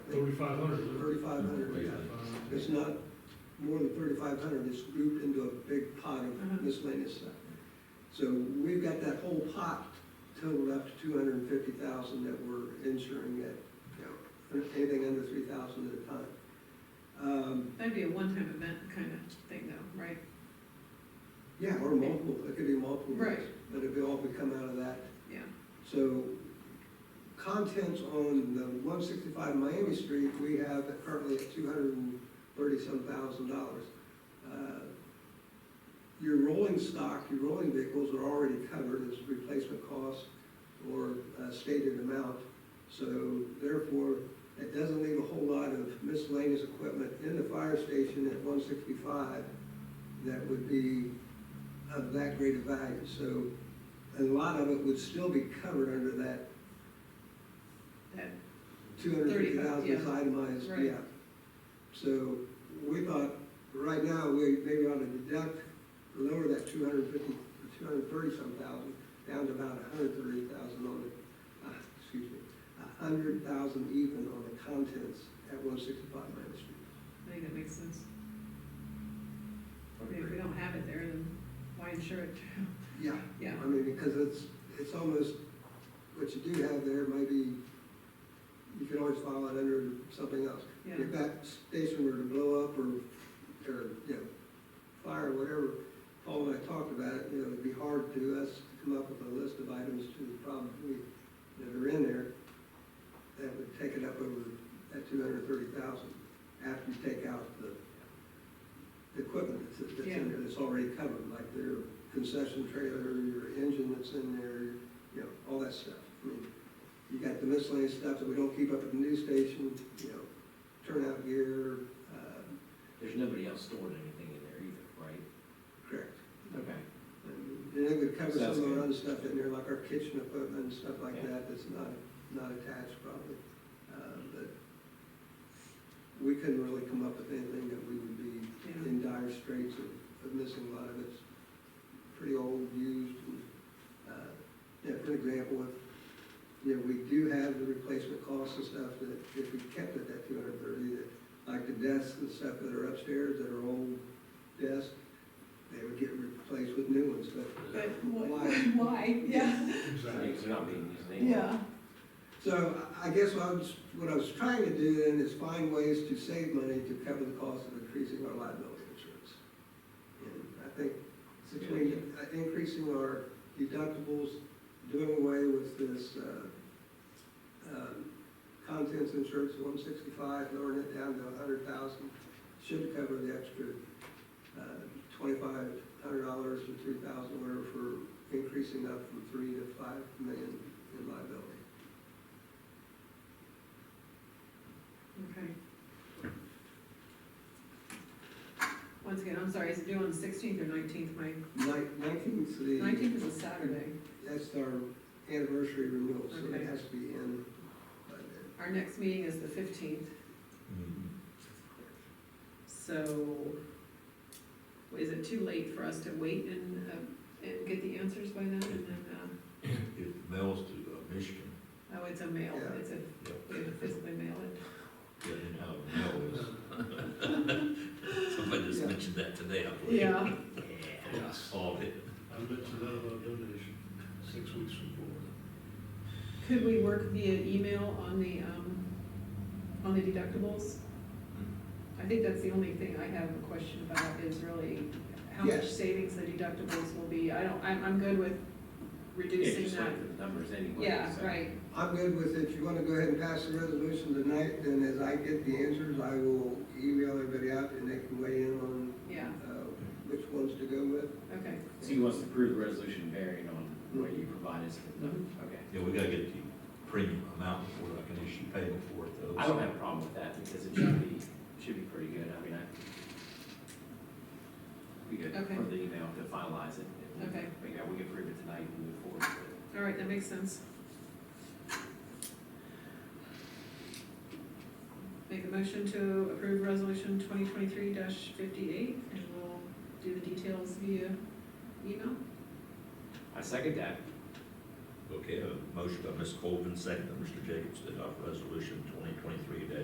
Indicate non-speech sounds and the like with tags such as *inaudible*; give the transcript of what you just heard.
Thirty-five hundred, is it? thirty-five hundred. It's not more than thirty-five hundred, it's grouped into a big pot of miscellaneous stuff. So we've got that whole pot totaled up to two hundred and fifty thousand that we're insuring at, you know, anything under three thousand at a time. Um, That'd be a one-time event kind of thing though, right? yeah, or multiple, it could be multiple. years, Right. But it'll all be come out of that Yeah. So contents on the one sixty-five Miami Street, we have currently at two hundred and thirty-some thousand dollars. Uh, Your rolling stock, your rolling vehicles are already covered as replacement cost or a stated amount. So therefore, it doesn't leave a whole lot of miscellaneous equipment in the fire station at one sixty-five that would be of that great of value. So a lot of it would still be covered under that That, two hundred fifty 35, thousand yeah. is itemized, Right. yeah. So we thought, right now, we maybe ought to deduct, lower that two hundred fifty, two hundred thirty-some thousand, down to about a hundred thirty thousand on the, ah, excuse me, a hundred thousand even on the contents at one sixty-five Main Street. I think that makes sense. I mean, If we don't have it there, then why insure it? *laughs* Yeah. Yeah. I mean, because it's, it's almost, what you do have there may be, you can always file it under something else. Yeah. If that station were to blow up or, or, you know, fire or whatever, Paul and I talked about it, you know, it'd be hard to us to come up with a list of items to the problem we, that are in there. That would take it up over that two hundred and thirty thousand, after you take out the, the equipment that's, that's in there, that's already covered, like their concession trailer, your engine that's in there, you know, all that stuff. I mean, you got the miscellaneous stuff that we don't keep up at the news station, you know, turnout gear, uh, There's nobody else storing anything in there either, right? correct. Okay. And it would cover some Sounds of our good. other stuff in there, like our kitchen equipment and stuff like Yeah. that, that's not, not attached probably. Uh, But we couldn't really come up with anything that we would be Yeah. in dire straits of, of missing a lot of it's pretty old, used, and, uh, yeah, for example, if, you know, we do have the replacement costs and stuff that if we kept it at two hundred and thirty, that, like the desks and stuff that are upstairs that are old desks, they would get replaced with new ones, but But Why? why, *laughs* why, yeah, Exactly. Things are not being used anymore. yeah, So I I guess what I was, what I was trying to do then is find ways to save money to cover the cost of increasing our liability insurance. And I think between uh, increasing our deductibles, doing away with this, uh, um, contents insurance one sixty-five, lowering it down to a hundred thousand, should cover the extra, uh, twenty-five hundred dollars or three thousand, whatever, for increasing up from three to five million in liability. okay. Once again, I'm sorry, is it due on the sixteenth or nineteenth, Mike? Nineteenth, the, Nineteenth is a Saturday. that's our anniversary renewal, so Okay. it has to be in by then. Our next meeting is the fifteenth, so is it too late for us to wait and, uh, and get the answers by then? And then, uh, It mails to uh, Michigan, oh, it's a mail, Yeah. it's a, yep, we have to physically mail it. getting out of mail is, somebody just Yeah. mentioned that today, I believe. Yeah. Yeah, I saw it. I mentioned that about donation, six weeks before. Could we work via email on the, um, on the deductibles? I think that's the only thing I have a question about is really how much Yes. savings the deductibles will be. I don't, I'm, I'm good with Yeah, reducing just that. like the numbers anyway. Yeah, so- right, I'm good with it, if you wanna go ahead and pass the resolution tonight, then as I get the answers, I will email everybody out and they can weigh in on, yeah, uh, which ones to go with. okay, So you want us to approve the resolution bearing on what you provide us with, no, Mm-hmm. okay. Yeah, we gotta get the premium amount before I can issue payment for it though. I don't have a problem with that, because it should be, should be pretty good, I mean, I. Be good Okay. for the email to finalize it. and Okay. We got, we can approve it tonight and move forward with it. all right, that makes sense. Make a motion to approve resolution twenty twenty-three fifty-eight, and we'll do the details via email. I second that, Okay, a motion by Ms. Colvin, second by Mr. Jacobs, to adopt resolution twenty twenty-three